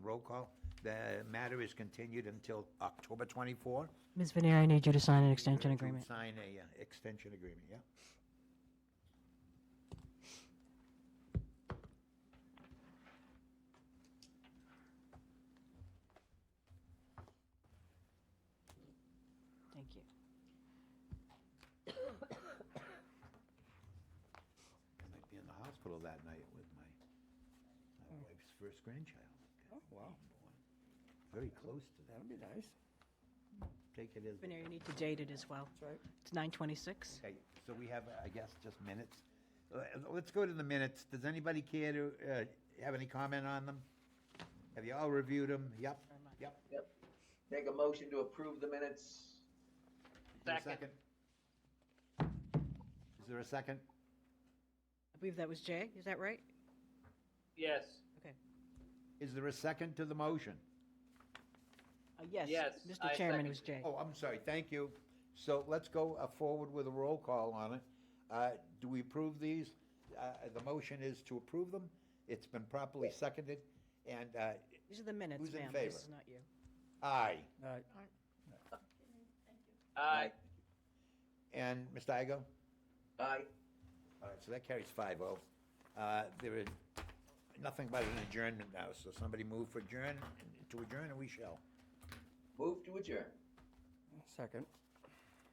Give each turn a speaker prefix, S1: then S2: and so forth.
S1: roll call. The matter is continued until October 24.
S2: Ms. Venier, I need you to sign an extension
S1: To
S2: agreement.
S1: Sign a uh, extension agreement, yeah?
S2: Thank you.
S1: I might be in the hospital that night with my, my wife's first grandchild.
S3: Hmm. Oh, wow.
S1: Very close to that.
S3: That'll be nice.
S1: Take it as.
S2: Venier, you need to date it as well.
S3: That's right.
S2: It's 9:26.
S1: Okay, so we have, I guess, just minutes. Uh, Let's go to the minutes. Does anybody care to uh, have any comment on them? Have you all reviewed them? Yep, yep.
S4: Make a motion to approve the minutes.
S1: Is there a Is there a second?
S2: I believe that was Jay, is that right?
S5: Yes.
S2: Okay.
S1: Is there a second to the motion?
S2: Uh, Yes.
S5: Yes,
S2: Mr.
S5: I
S2: Chairman,
S5: second
S2: it was Jay.
S1: Oh, I'm sorry, thank you. So let's go uh, forward with a roll call on it. Uh, Do we approve these? Uh, The motion is to approve them. It's been properly seconded, and uh,
S2: These are the minutes,
S1: Who's in
S2: ma'am.
S1: favor?
S2: This is not you.
S1: aye.
S3: All right.
S5: Aye.
S1: And Mr. Igo?
S4: Aye.
S1: All right, so that carries five oh. There is nothing but an adjournment now, so somebody move for adjourn, to adjourn, and we shall.
S4: Move to adjourn.
S3: Second.